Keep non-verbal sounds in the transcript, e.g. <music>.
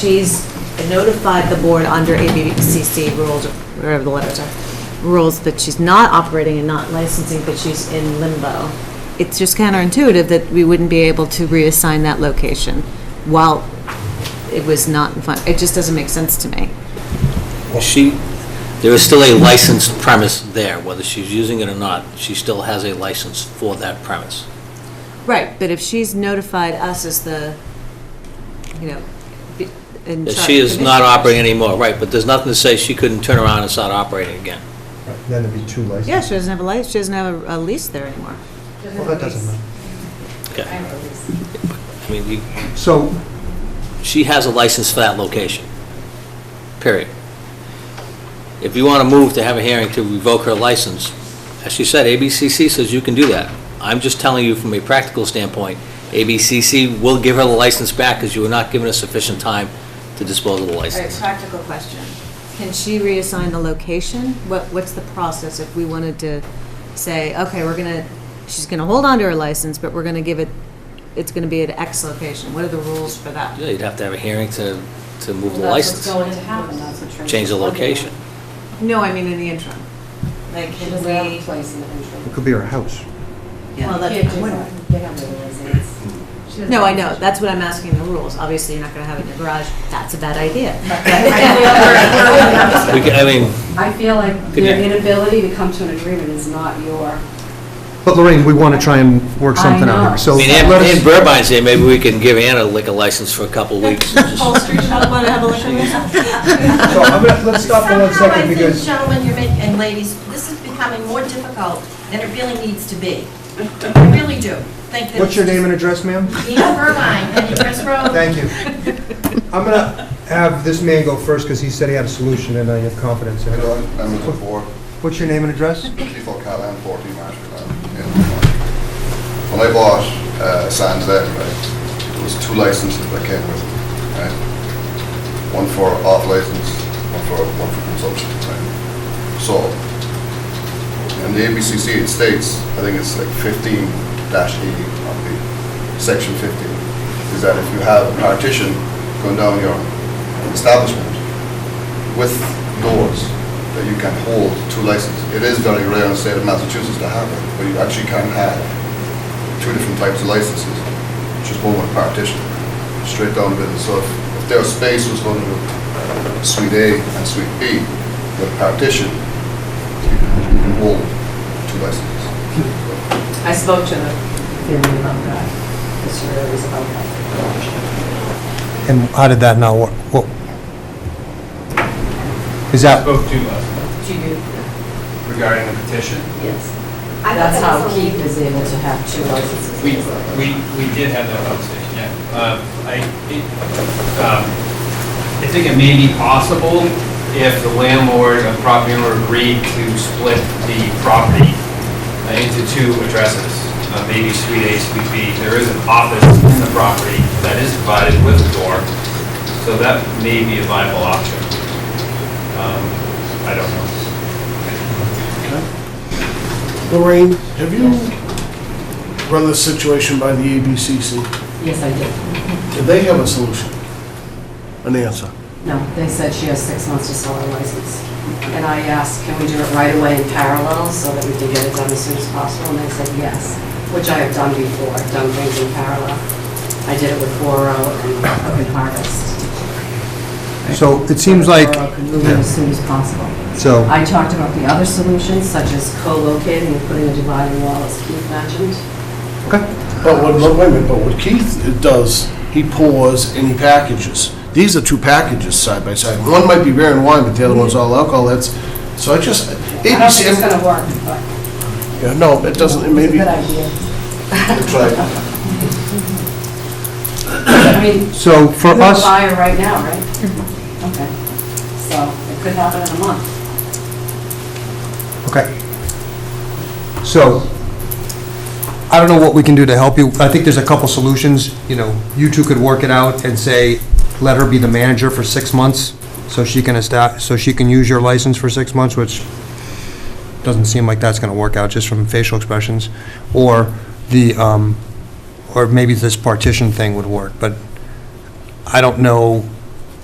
she's notified the board under ABCC rules, or whatever the letters are, rules that she's not operating and not licensing, but she's in limbo. It's just counterintuitive that we wouldn't be able to reassign that location while it was not in fun. It just doesn't make sense to me. She, there is still a licensed premise there, whether she's using it or not, she still has a license for that premise. Right, but if she's notified us as the, you know, be- in That charge. she is not commissioners- operating anymore, right, but there's nothing to say she couldn't turn around and start operating again. Right, Then it'd be two licenses. Yeah, she doesn't have a license, she doesn't have a- a lease there anymore. Well, that doesn't matter. Okay, I mean, you- So, she has a license for that location, period. If you want to move to have a hearing to revoke her license, as she said, ABCC says you can do that. I'm just telling you from a practical standpoint, ABCC will give her the license back because you were not given us sufficient time to dispose of the All right, license. practical question. Can she reassign the location? What, what's the process if we wanted to say, okay, we're gonna, she's gonna hold on to her license, but we're gonna give it, it's gonna be at X location? What are the rules for that? Yeah, You'd have to have a hearing to, to move the Well, that's license, what's going to happen, that's what Trish's change the looking at. <laughs> location. No, I mean in the interim. Like, She can doesn't have we? a place in the interim. it could be our house. You Well, can't that's, do I wouldn't- that. They have their residence. She doesn't No, I have know, a- that's what I'm asking the rules. Obviously, you're not gonna have it in your garage. That's a bad <laughs> idea. <laughs> We could- I mean, I feel like Could your you- inability to come to an agreement is not your, But Lorraine, we want to try and work I something know. out here, so I mean, Ann let Ann us, Burbine's here, maybe we can give Ann a liquor license for a couple of weeks. and <laughs> just- <laughs> so I'm gonna, let's stop for one second because, Somehow, I think, gentlemen, you're making, and ladies, this is becoming more difficult than it really needs to be. I really do. Think that what's your name and address, ma'am? Nina Irvine, Penny Press Road. Thank you. I'm gonna have this man go first because he said he had a solution and I have confidence in Hello, him. I'm with the board, What's your name and address? people call in 14 miles per hour. When I bought uh, Sands there, right, there was two licenses that came with it, right? One for off license, one for, one for consumption, right? So, in the ABCC, it states, I think it's like 15-E of the, section 15, is that if you have a partition going down your establishment, with doors that you can hold two licenses. It is very rare in the state of Massachusetts to have it, but you actually can have two different types of licenses, just one with a partition, straight down the middle. So if if their space was going to Suite A and Suite B with partition, you can you can hold two licenses. I spoke to the family about that, the surveyors about that. And how did that now work? What- Is that, spoke to us Do you, regarding the petition. yes. That's how Keith is able to have two licenses. We, we, we did have that conversation, yeah. Uh, I, it, um, I think it may be possible if the landlord and property owner agreed to split the property uh, into two addresses, uh, maybe Suite A, Suite B. There is an office in the property that is provided with a door, so that may be a viable option. Um, I don't know. Lorraine, have you run this situation by the ABCC? Yes, I did. Do they have a solution? An answer? No, they said she has six months to sell her license. And I asked, can we do it right away in parallel so that we can get it done as soon as possible? And they said yes, which I have done before. I've done things in parallel. I did it with Boro and Open Harvest. so it seems like, Boro could move it as soon as possible. so, I talked about the other solutions such as co-locating and putting a dividing wall as Keith mentioned. But what, no, wait a minute, but what Keith does, he pours and he packages. These are two packages side by side. One might be beer and wine, but the other one's all alcohol, that's, so I just, I don't think it's ABC, gonna work, but yeah, no, it doesn't, it may it's a be, good idea. Try, I mean, so for You have a us, buyer right now, right? Okay, so it could happen in a month. okay. So, I don't know what we can do to help you. I think there's a couple solutions, you know, you two could work it out and say, let her be the manager for six months, so she can esta, so she can use your license for six months, which doesn't seem like that's gonna work out, just from facial expressions. Or the, um, or maybe this partition thing would work, but I don't know